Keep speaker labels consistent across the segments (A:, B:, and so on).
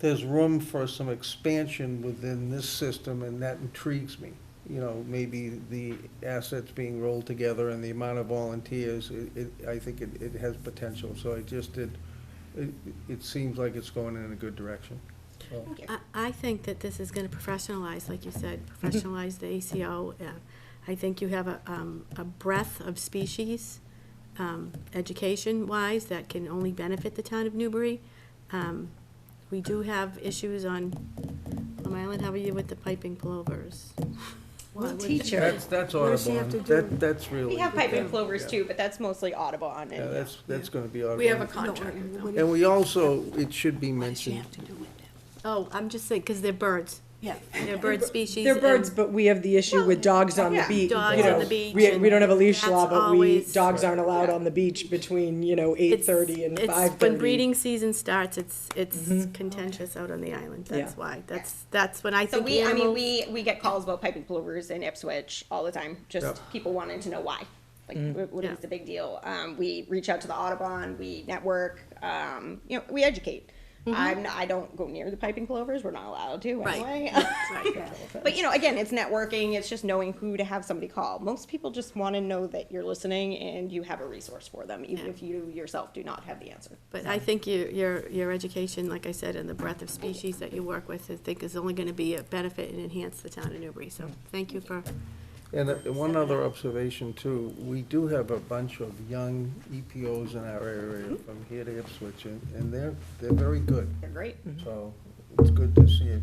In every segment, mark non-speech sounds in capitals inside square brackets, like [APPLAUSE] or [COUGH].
A: there's room for some expansion within this system, and that intrigues me. You know, maybe the assets being rolled together and the amount of volunteers, it, it- I think it, it has potential. So I just did, it, it seems like it's going in a good direction. So-
B: I, I think that this is gonna professionalize, like you said,
C: Mm-hmm.
B: professionalize the ACO. Uh, I think you have a, um, a breadth of species, um, education-wise, that can only benefit the town of Newbury. Um, we do have issues on Plum Island, how are you with the piping plovers?
D: Well,
B: What-
D: teacher,
A: That's, that's
D: What does she have
A: Audubon.
D: to do?
A: That, that's really.
E: We have piping plovers
A: yeah.
E: too, but that's mostly Audubon
A: Yeah,
E: and
A: that's, that's gonna be
F: We have a
A: Audubon.
F: contract with them.
A: And we also, it should be
D: what does she
A: mentioned,
D: have to do with that?
B: Oh, I'm just saying, because they're birds,
D: Yeah.
B: they're bird species.
C: They're birds,
B: and-
C: but we have the issue with dogs on the
E: yeah,
C: beach.
B: dogs
C: you
B: on
C: know.
B: the beach
C: We, we
B: and
C: don't have a leash law,
B: that's
C: but we,
B: always-
C: dogs aren't allowed
E: Yeah.
C: on the beach between, you know, eight
B: It's-
C: thirty and
B: it's-
C: five
B: When
C: thirty. Mm-hmm.
B: breeding season starts, it's, it's contentious out on the island, that's
C: Yeah.
B: why, that's, that's when I
E: so
B: think
E: we, I mean,
B: animals.
E: we, we get calls about piping plovers in Ipswich all the time,
A: Yep. Mm-hmm.
E: just people wanting to know why. Like, wh- what
B: Yeah.
E: is the big deal? Um, we reach out to the Audubon, we network, um, you know, we educate. I'm, not- I don't go near the piping plovers, we're not allowed to
B: Mm-hmm. Right.
E: [LAUGHS] anyway.
B: Right.
E: But you know, again, it's networking, it's just knowing who to have somebody call. Most people just wanna know that you're listening and you have a resource for them, even
B: Yeah.
E: if you yourself do not have the answer.
B: But I think your, your, your education, like I said, and the breadth of species that you work with, I think is only gonna be a benefit and enhance the town of Newbury, so thank you for,
A: and uh, one other observation too, we do have a bunch of young EPOs in our
B: Mm-hmm.
A: area from here to Ipswich, and, and they're, they're very good.
E: They're great.
B: Mm-hmm.
A: So it's good to see it,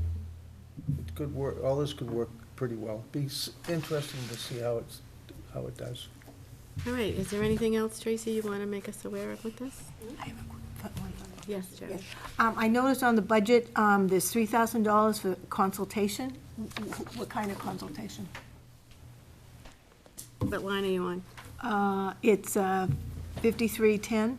A: it could work, all this could work pretty well. Be s- interesting to see how it's, how it does.
B: all right, is there anything else, Tracy, you wanna make us aware of with this?
D: I have a quick foot one.
B: Yes, Jerry.
D: Um, I noticed on the budget, um, there's three thousand dollars for consultation. Wh- wh- What kind of consultation?
B: What line are you on?
D: Uh, it's, uh, fifty-three ten,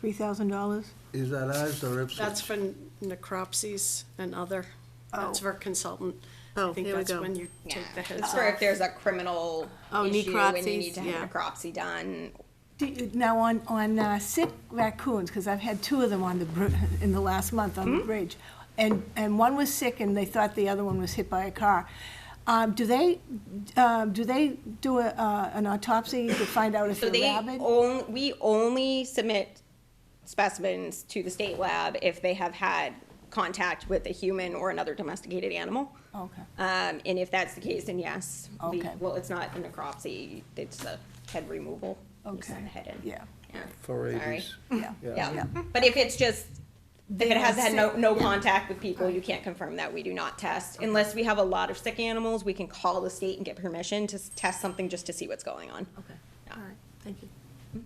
D: three thousand dollars.
A: Is that ours or
F: That's
A: Ipswich?
F: for necropsies and other, that's
D: Oh.
F: for consultant.
B: Oh,
F: I think
B: here we
F: that's
B: go.
F: when you take the heads
E: That's where if
F: off.
E: there's a criminal
B: Oh,
E: issue and you
B: necropsies,
E: need to have
B: yeah.
E: a necropsy done.
D: Do you- Now, on, on uh, sick raccoons, because I've had two of them on the, br- [LAUGHS] in the last month on the
E: Hmm?
D: bridge, and, and one was sick and they thought the other one was hit by a car. Um, Do they, um, do they do a, uh, an autopsy to find out if
E: So
D: they're
E: they
D: rabid?
E: only, we only submit specimens to the state lab if they have had contact with a human or another domesticated animal.
D: Okay.
E: Um, and if that's the case, then yes. we-
D: Okay.
E: Well, it's not a necropsy, it's a head removal. You send
D: Okay.
E: the head in.
D: [LAUGHS] Yeah,
E: Yeah.
A: For
E: Sorry.
A: rabies.
D: yeah.
E: Yeah, but if it's just, if it has had no, no contact with people, you can't confirm that, we do not test. Unless we have a lot of sick animals, we can call the state and get permission to s- test something just to see what's going on.
D: Okay, all right, thank you.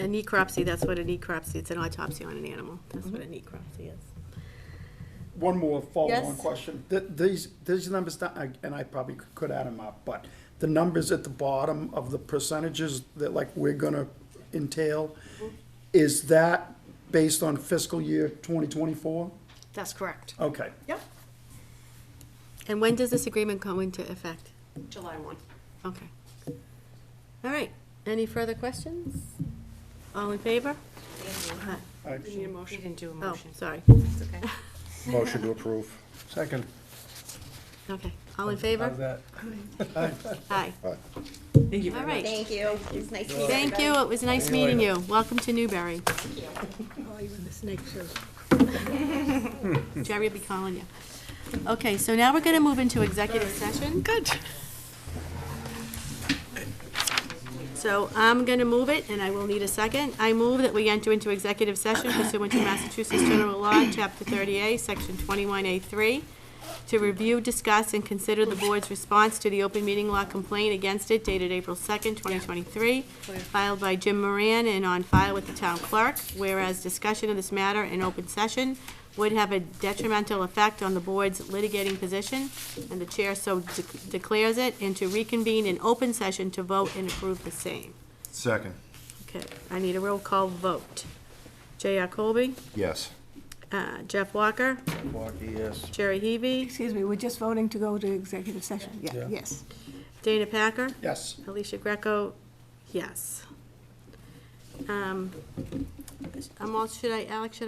B: A necropsy, that's what a necropsy, it's an autopsy on an animal, that's what a necropsy is.
G: One more follow-on
B: Yes.
G: question. Th- These, these numbers, that I- and I probably could add them up, but the numbers at the bottom of the percentages that like we're gonna entail, is that based on fiscal year 2024?
F: That's correct,
G: Okay.
F: Yep.
B: And when does this agreement go into effect?
F: July one.
B: Okay. All right, any further questions? All in favor? Aye.
F: We need a motion. didn't do a
B: Oh, sorry,
H: Motion to approve.
A: Second.
B: okay, all
F: Um,
B: in
A: How's
B: favor? [LAUGHS]
A: that?
B: Aye.
H: Aye.
C: Thank
B: All
C: you very much.
B: right,
E: Thank you, it was nice to meet you.
B: thank you, it was nice
A: See you
B: meeting you,
A: later.
B: welcome to Newbury.
D: Oh, you were the snake show.
B: Jerry will be calling you. Okay, so now we're gonna move into executive session. Good. So I'm gonna move it, and I will need a second. I move that we enter into executive session pursuant to Massachusetts General Law, Chapter 30A, Section 21A3, to review, discuss, and consider the board's response to the open meeting law complaint against it dated April 2nd, 2023, filed by Jim Moran and on file with the town clerk, whereas discussion of this matter in open session would have a detrimental effect on the board's litigating position, and the chair so de- declares it, and to reconvene in open session to vote and approve the same.
H: Second.
B: Okay, I need a roll call vote. J.R. Colby,
H: Yes.
B: uh, Jeff Walker,
A: Milwaukee, yes.
B: Jerry Heavy,
D: Excuse me, we're just voting to go to executive session, yeah,
A: Yeah.
D: yes.
B: Dana Packer,
G: Yes.
B: Alicia Greco, yes. Um, I'm all, should I, Alex, should